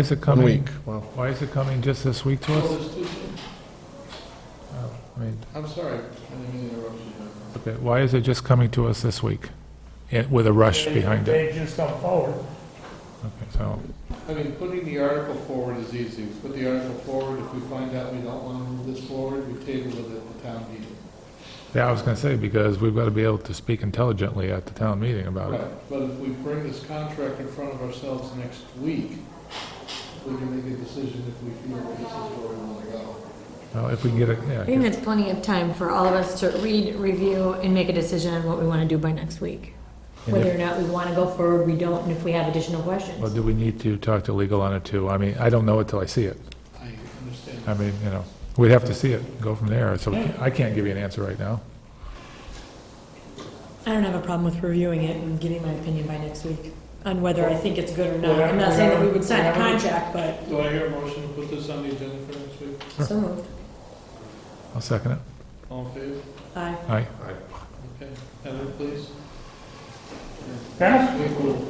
is it One coming? week, wow. Why is it coming just this week to Well, us? there's two things. Oh, I mean, I'm sorry, I didn't mean to interrupt you. Jennifer. okay, Why is it just coming to us this week? Yeah, With a rush They- behind it? They just come forward. Okay, so, I mean, putting the article forward is easy. We Put the article forward, if we find out we don't want to move this forward, we table it at the town meeting. yeah, I was gonna say, because we've gotta be able to speak intelligently at the town meeting about it. Right, but if we bring this contract in front of ourselves next week, we can make a decision if we feel this is where we want to go. Well, if we can get it, I think yeah, that's plenty of time for all of us to read, review, and make a decision on what we want to do by next week. And Whether if- or not we want to go forward, we don't, and if we have additional questions. well, do we need to talk to legal on it too? I mean, I don't know it till I see it. I understand. I mean, you know, we'd have to see it, and go from there, so we can't- I can't give you an answer right now. I don't have a problem with reviewing it and giving my opinion by next week on whether I think it's good or not. I'm not saying that we would sign a contract, but Do I hear a motion to put this on the agenda for next week? so moved. I'll second it. All in favor? Aye. Aye. Okay, Heather, please. Dennis? We will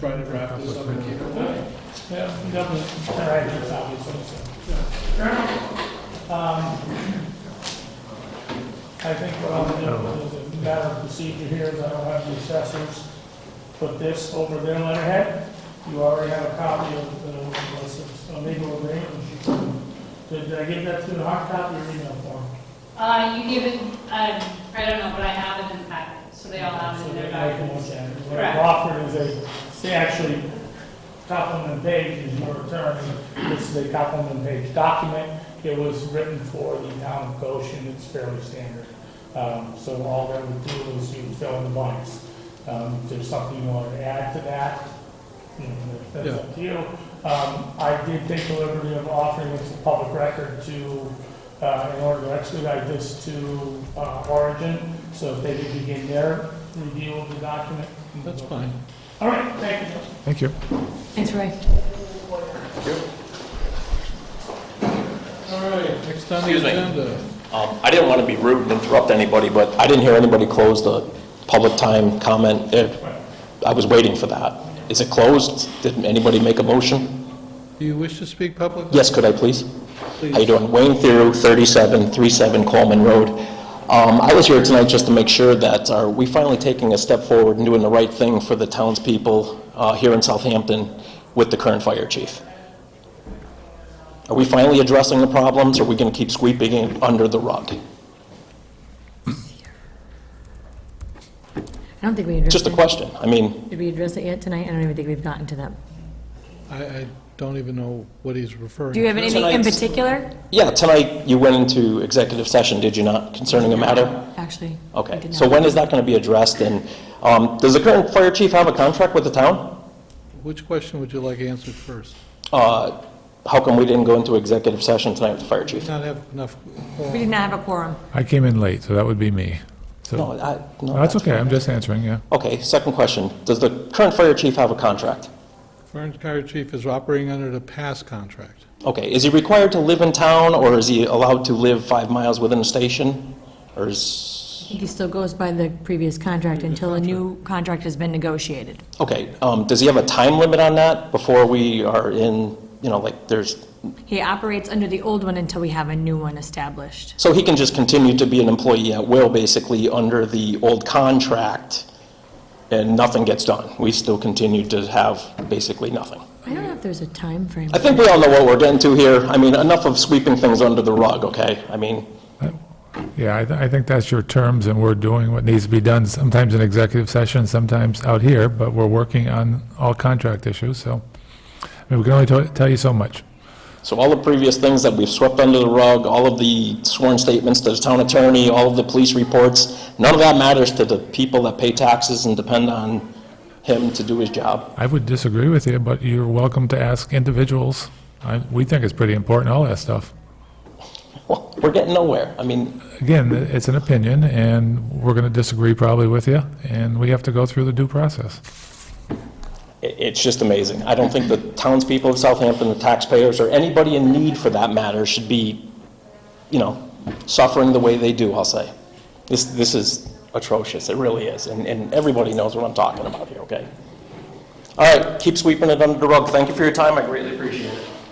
try to wrap this up and keep it moving. Yeah, definitely. All right, it's obviously, so. Um, I think what I'll do is a matter of procedure here is I don't have the assessors put this over their letterhead. You already have a copy of the, of the legal agreement. Did I give that to the hard copy or email form? Uh, you give it, um, I don't know, but I have it in the packet, so they all have it So in they their like to look documents. at it. What I've offered is a, they actually complement page is your attorney, this is a complement page document. It was written for the town of Goshen, it's fairly standard. Um, so all that would do is you fill in the blanks. Um, if there's something you want to add to that, you know, that's up to you. Um, I did take the liberty of offering it to public record to, uh, in order to expedite this to, uh, Origin, so if they could begin their review of the document. That's fine. All right, thank you. Thank you. Thanks, Roy. All right, next on the Excuse me. agenda. Um, I didn't want to be rude and interrupt anybody, but I didn't hear anybody close the public time comment. Eh, I was waiting for that. Is it closed? Did anybody make a motion? Do you wish to speak publicly? Yes, could I please? How you Please. doing? Wayne Theroux, 3737 Coleman Road. Um, I was here tonight just to make sure that, are we finally taking a step forward and doing the right thing for the townspeople uh, here in Southampton with the current fire chief? Are we finally addressing the problems, or are we going to keep sweeping it under the rug? I don't think we addressed Just a it. question. I mean, Did we address it yet tonight? I don't even think we've gotten to that. I, I don't even know what he's referring Do you have to. anything in particular? Yeah, tonight you went into executive session, did you not, concerning a matter? Actually. we Okay, did so not. when is that going to be addressed? And um, does the current fire chief have a contract with the town? Which question would you like answered first? Uh, How come we didn't go into executive session tonight with the fire Did chief? Not have enough. We did not have a quorum. I came in late, so that would be me. No, So, I- no, No, that's okay, I'm just answering, yeah. Okay, second question. Does the current fire chief have a contract? Fire fire chief is operating under the past contract. Okay, is he required to live in town, or is he allowed to live five miles within the station? Or is... I think he still goes by the previous contract until a new contract has been negotiated. Okay, um, does he have a time limit on that before we are in, you know, like, there's He operates under the old one until we have a new one established. So he can just continue to be an employee at will, basically, under the old contract, and nothing gets done. We still continue to have basically nothing. I don't know if there's a time frame. I think we all know what we're getting to here. I mean, enough of sweeping things under the rug, okay? I mean, Yeah, I, th- I think that's your terms, and we're doing what needs to be done, sometimes in executive session, sometimes out here, but we're working on all contract issues, so, I mean, we can only tell- tell you so much. so all the previous things that we've swept under the rug, all of the sworn statements to the town attorney, all of the police reports, none of that matters to the people that pay taxes and depend on him to do his job. I would disagree with you, but you're welcome to ask individuals. I, we think it's pretty important, all that stuff. Well, we're getting nowhere. I mean, Again, it's an opinion, and we're gonna disagree probably with you, and we have to go through the due process. It- It's just amazing. I don't think the townspeople of Southampton, the taxpayers, or anybody in need for that matter should be, you know, suffering the way they do, I'll say. This, this is atrocious, it really is, and, and everybody knows what I'm talking about here, okay? All right, keep sweeping it under the rug. Thank you for your time, I greatly appreciate it.